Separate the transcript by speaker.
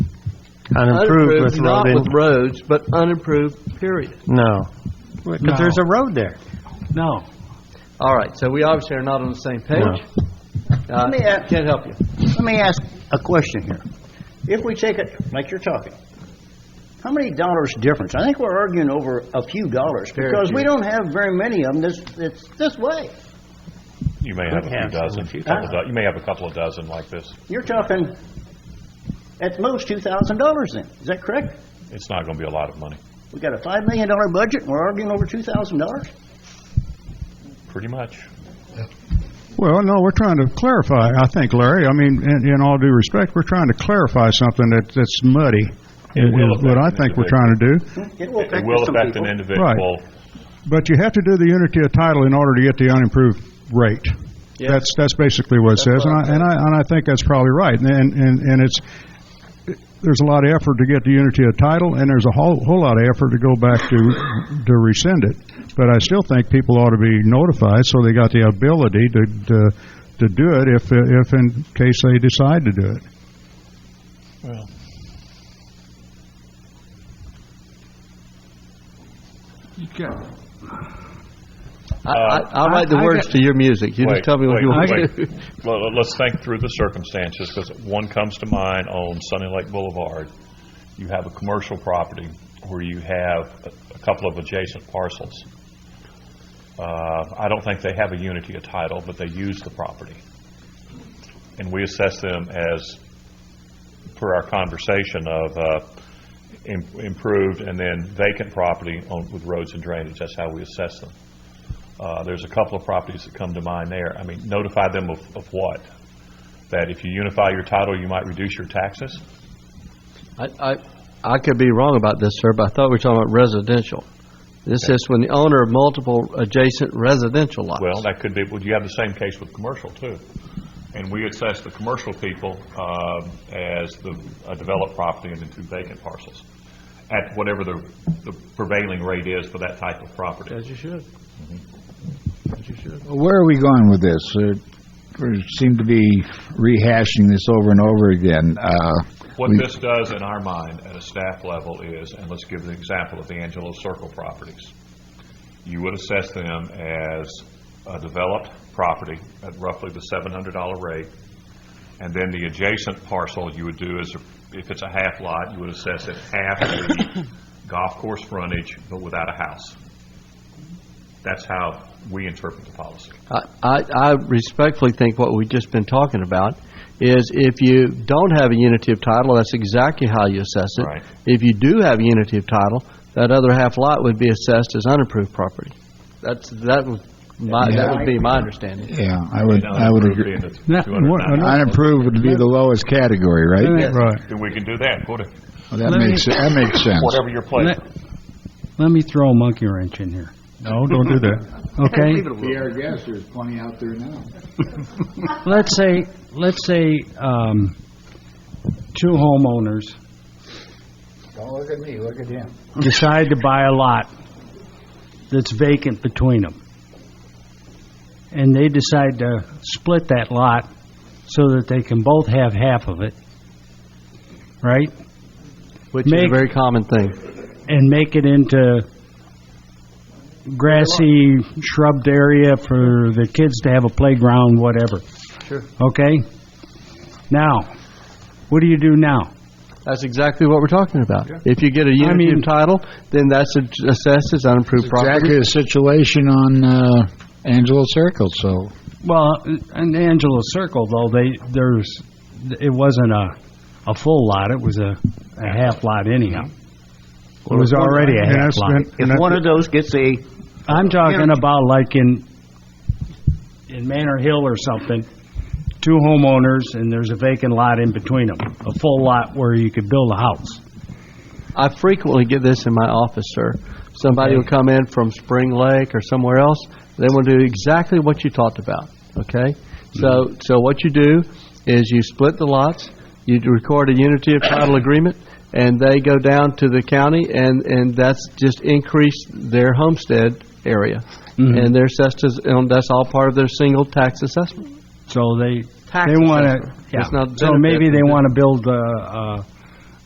Speaker 1: Unimproved with road
Speaker 2: Not
Speaker 1: in,
Speaker 2: with roads, but unimproved, period.
Speaker 1: no. Because there's a road there.
Speaker 3: No.
Speaker 2: All right, so we obviously are not on the same page. Uh,
Speaker 4: me ask-
Speaker 2: Can't help you.
Speaker 4: Let me ask a question here. If we take it, like you're talking, how many dollars difference? I think we're arguing over a few dollars
Speaker 2: Very
Speaker 4: because we
Speaker 2: few.
Speaker 4: don't have very many of them this, it's this way.
Speaker 5: You may have a few
Speaker 1: have some,
Speaker 5: dozen, couple do- you may have a couple of dozen like this.
Speaker 4: You're talking at most two thousand dollars then, is that correct?
Speaker 5: It's not going to be a lot of money,
Speaker 4: We got a five million dollar budget and we're arguing over two thousand dollars?
Speaker 5: pretty much.
Speaker 6: Well, no, we're trying to clarify, I think, Larry. I mean, in, in all due respect, we're trying to clarify something that, that's muddy,
Speaker 5: It
Speaker 6: is
Speaker 5: will
Speaker 6: what
Speaker 5: affect
Speaker 6: I
Speaker 5: an
Speaker 6: think we're trying to do.
Speaker 4: It will
Speaker 5: Hmm. It
Speaker 4: affect
Speaker 5: will
Speaker 4: some
Speaker 5: affect
Speaker 4: people.
Speaker 5: an individual.
Speaker 6: But you have to do the unity of title in order to get the unimproved rate. That's, that's basically what it says, and I, and I, and I think that's probably right. And, and, and it's, there's a lot of effort to get the unity of title, and there's a whole, whole lot of effort to go back to, to rescind it. But I still think people ought to be notified, so they got the ability to, to, to do it if, if in case they decide to do it.
Speaker 5: Well,
Speaker 3: You got-
Speaker 2: I- I- I'll write the
Speaker 3: I- I
Speaker 2: words
Speaker 3: got-
Speaker 2: to your music. You just
Speaker 5: Uh, Wait,
Speaker 2: tell me what
Speaker 5: wait,
Speaker 2: you want
Speaker 5: wait.
Speaker 2: to do.
Speaker 5: Well, let- let's think through the circumstances, because one comes to mind on Sunny Lake Boulevard. You have a commercial property where you have a- a couple of adjacent parcels. Uh, I don't think they have a unity of title, but they use the property. And we assess them as, per our conversation of uh, im- improved and then vacant property on- with roads and drainage. That's how we assess them. Uh, There's a couple of properties that come to mind there. I mean, notify them of, of what? That if you unify your title, you might reduce your taxes?
Speaker 2: I, I, I could be wrong about this, sir, but I thought we were talking about residential. This is when the owner of multiple adjacent residential lots.
Speaker 5: Well, that could be, well, you have the same case with commercial, too. And we assess the commercial people um, as the a developed property and the two vacant parcels at whatever the the prevailing rate is for that type of property.
Speaker 2: As you should. As you should.
Speaker 7: Where are we going with this? Uh, We seem to be rehashing this over and over again. Uh,
Speaker 5: What this does in our mind at a staff level is, and let's give the example of the Angelo Circle properties. You would assess them as a developed property at roughly the seven hundred dollar rate. And then the adjacent parcel you would do is, if it's a half lot, you would assess it half the golf course frontage, but without a house. That's how we interpret the policy.
Speaker 2: I, I I respectfully think what we've just been talking about is if you don't have a unity of title, that's exactly how you assess it.
Speaker 5: Right.
Speaker 2: If you do have a unity of title, that other half lot would be assessed as unapproved property. That's, that would, my, that would be my understanding.
Speaker 7: yeah, I would,
Speaker 5: Now,
Speaker 7: I would
Speaker 5: approved
Speaker 7: agree.
Speaker 5: being the
Speaker 3: Yeah,
Speaker 5: 290.
Speaker 3: what-
Speaker 7: Unapproved would be the lowest category, right?
Speaker 6: Right.
Speaker 5: Then we can do that, What-
Speaker 7: Well, That
Speaker 3: Let me-
Speaker 7: makes, that makes sense.
Speaker 5: whatever your pleasure.
Speaker 3: Let let me throw a monkey wrench in here,
Speaker 6: No, don't do that.
Speaker 3: okay?
Speaker 7: Be our guest, there's plenty out there now.
Speaker 3: Let's say, let's say, um, two homeowners
Speaker 7: Don't look at me, look at him.
Speaker 3: decide to buy a lot that's vacant between them. And they decide to split that lot so that they can both have half of it, right?
Speaker 2: Which is a
Speaker 3: Make-
Speaker 2: very common thing.
Speaker 3: And make it into grassy shrubbed area for the kids to have a playground, whatever.
Speaker 2: Sure.
Speaker 3: Okay? Now, what do you do now?
Speaker 2: That's exactly what we're talking about. If you get a unity
Speaker 3: mean-
Speaker 2: of title, then that's a- assessed as unapproved property.
Speaker 7: Exactly the situation on uh, Angelo Circle, so.
Speaker 3: Well, in Angelo Circle, though, they, there's, it wasn't a, a full lot, it was a, a half lot anyhow. It was already a
Speaker 6: And
Speaker 3: half
Speaker 6: that's-
Speaker 3: lot.
Speaker 6: and-
Speaker 4: If
Speaker 6: and that-
Speaker 4: one of those gets a,
Speaker 3: I'm talking about like in, in Manor Hill or something, two homeowners, and there's a vacant lot in between them, a full lot where you could build a house.
Speaker 2: I frequently get this in my office, sir. Somebody will come in from Spring Lake or somewhere else. They will do exactly what you talked about, okay? So, so what you do is you split the lots, you record a unity of title agreement, and they go down to the county, and, and that's just increased their homestead area. And their assessed as, and that's all part of their single tax assessment.
Speaker 3: So they,
Speaker 2: Tax
Speaker 3: they want to,
Speaker 2: assessment.
Speaker 3: yeah,
Speaker 2: It's not
Speaker 3: so maybe
Speaker 2: benefit,
Speaker 3: they
Speaker 2: but-
Speaker 3: want to build a,